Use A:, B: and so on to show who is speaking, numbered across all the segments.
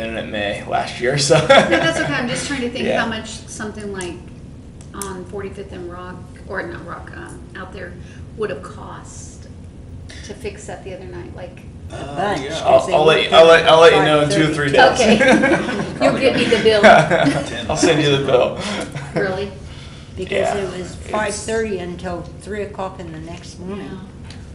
A: in May last year, so.
B: No, that's okay, I'm just trying to think
A: Yeah.
B: how much something like on 45th and Rock, or not Rock, um, out there would have cost to fix that the other night, like,
A: Uh,
C: bunch,
A: yeah,
C: 'cause
A: I'll,
C: they
A: I'll let
C: were
A: you, I'll let, I'll let you
C: five
A: know in two or
C: thirty.
A: three days.
B: okay. You'll give me the bill,
A: I'll send you the bill.
B: really?
C: Because
A: Yeah,
C: it was
A: it's-
C: five thirty until three o'clock in the next
B: Yeah.
C: morning.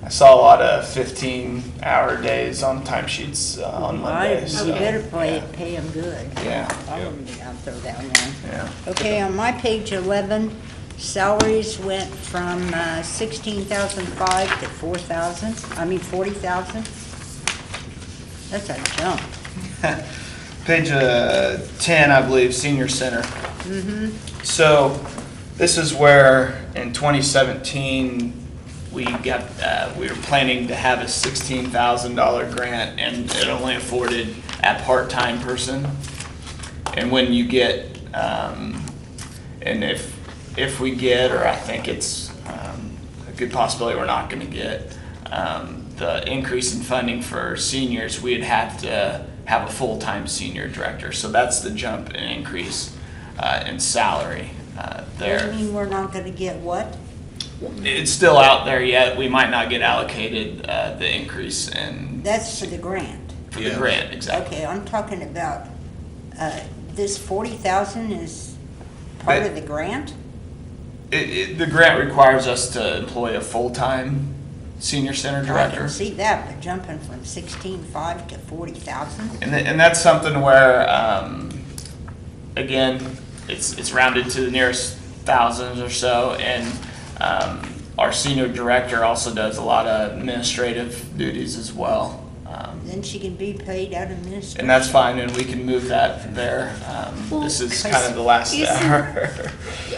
A: I saw a lot of 15 hour days on timesheets uh, on
C: I-
A: Monday.
C: You
A: So,
C: better play,
A: yeah.
C: pay them good.
A: Yeah.
C: I'll, I'll throw that one
A: Yeah.
C: in. Okay, on my page eleven, salaries went from uh, sixteen thousand five to four thousand, I mean forty thousand. That's a jump.
A: Page uh, 10, I believe, senior center. So this is where in 2017, we got, uh, we were planning to have a $16,000 grant and it only afforded a part-time person. And when you get, um, and if, if we get, or I think it's, um, a good possibility we're not gonna get, um, the increase in funding for seniors, we'd have to have a full-time senior director. So that's the jump and increase, uh, in salary, uh, there.
C: You mean we're not gonna get what?
A: It's still out there yet. We might not get allocated uh, the increase in
C: That's for the grant.
A: for the grant, exactly.
C: Okay, I'm talking about, uh, this forty thousand is part
A: But-
C: of the grant?
A: It, it, the grant requires us to employ a full-time senior center
C: I
A: director.
C: can see that, but jumping from sixteen-five to forty thousand?
A: And, th- and that's something where, um, again, it's, it's rounded to the nearest thousands or so. And, um, our senior director also does a lot of administrative duties as well. Um,
C: Then she can be paid out of ministry.
A: and that's fine, and we can move that there. Um, this is kind of the last
B: Well,
A: hour.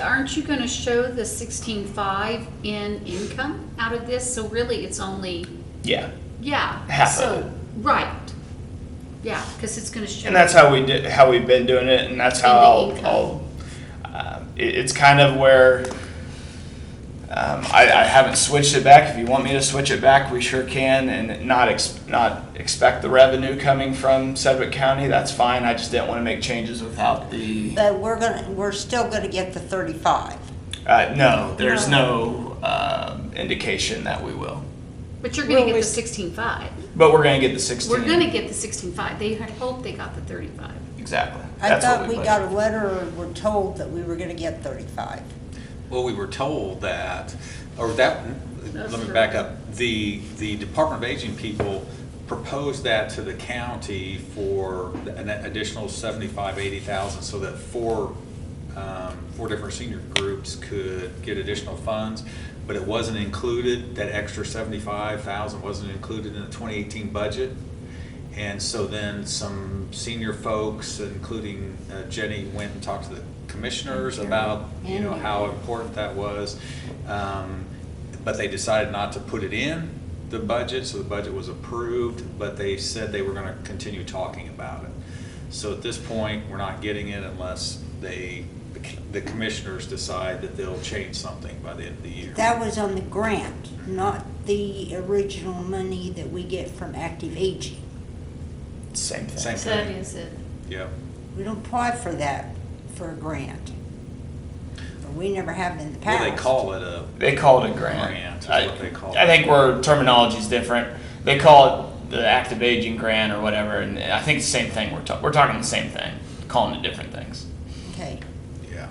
B: Aren't you gonna show the 16.5 in income out of this? So really, it's only,
A: Yeah.
B: yeah,
A: Half of
B: so,
A: it.
B: right, yeah, because it's gonna show.
A: And that's how we did, how we've been doing it, and that's how
B: And the
A: I'll, I'll, um, it, it's kind of where, um, I, I haven't switched it back. If you want me to switch it back, we sure can, and not ex, not expect the revenue coming from Sedgwick County, that's fine. I just didn't wanna make changes without the,
C: But we're gonna, we're still gonna get the thirty-five.
A: uh, no, there's no, um, indication that we will.
B: But you're gonna
C: Well,
B: get the
C: we-
B: 16.5.
A: But we're gonna get the 16
B: We're gonna get the 16.5. They had hoped they got the 35.
A: Exactly.
C: I
A: That's what
C: thought we
A: budgeted.
C: got a letter or were told that we were gonna get thirty-five.
D: Well, we were told that, or that,
B: That's
D: let me
B: true.
D: back up. The, the Department of Aging people proposed that to the county for an additional seventy-five, eighty thousand, so that four, um, four different senior groups could get additional funds. But it wasn't included, that extra seventy-five thousand wasn't included in the twenty eighteen budget. And so then some senior folks, including uh, Jenny, went and talked to the commissioners about, you know, how important that was. Um, But they decided not to put it in the budget, so the budget was approved, but they said they were gonna continue talking about it. So at this point, we're not getting it unless they, the commissioners decide that they'll change something by the end of the year.
C: That was on the grant, not the original money that we get from active aging.
A: Same thing.
D: Same.
B: So that is it.
D: Yep.
C: We don't apply for that, for a grant. Or We never have in the
D: Well,
C: past.
D: they call it a,
A: They call it a grant.
D: Grant is
A: I-
D: what they call
A: I
D: it.
A: think where terminology's different. They call it the active aging grant or whatever, and I think it's the same thing. We're, ta- we're talking the same thing, calling it different things.
C: Okay.
D: yeah.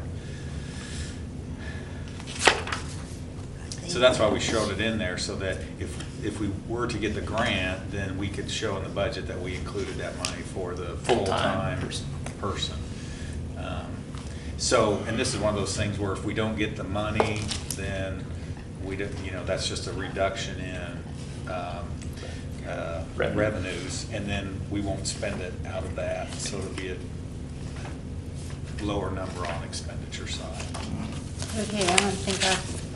D: So that's why we showed it in there, so that if, if we were to get the grant, then we could show in the budget that we included that money for the
A: Full-time
D: full-time person. Um, So, and this is one of those things where if we don't get the money, then we don't, you know, that's just a reduction in, um, uh,
A: Revenue.
D: revenues, and then we won't spend it out of that, so it'll be a lower number on expenditure side.
C: Okay, I don't think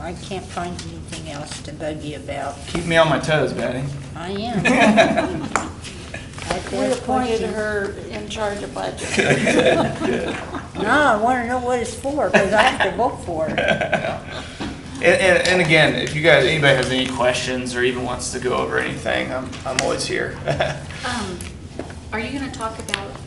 C: I, I can't find anything else to bug you about.
A: Keep me on my toes, Betty.
C: I am. I've
E: We
C: got
E: appointed
C: questions.
E: her in charge of budget.
C: No, I wanna know what it's for, because I have to vote for it.
A: And, and, and again, if you guys, anybody has any questions or even wants to go over anything, I'm, I'm always here.
B: Um, Are you gonna talk about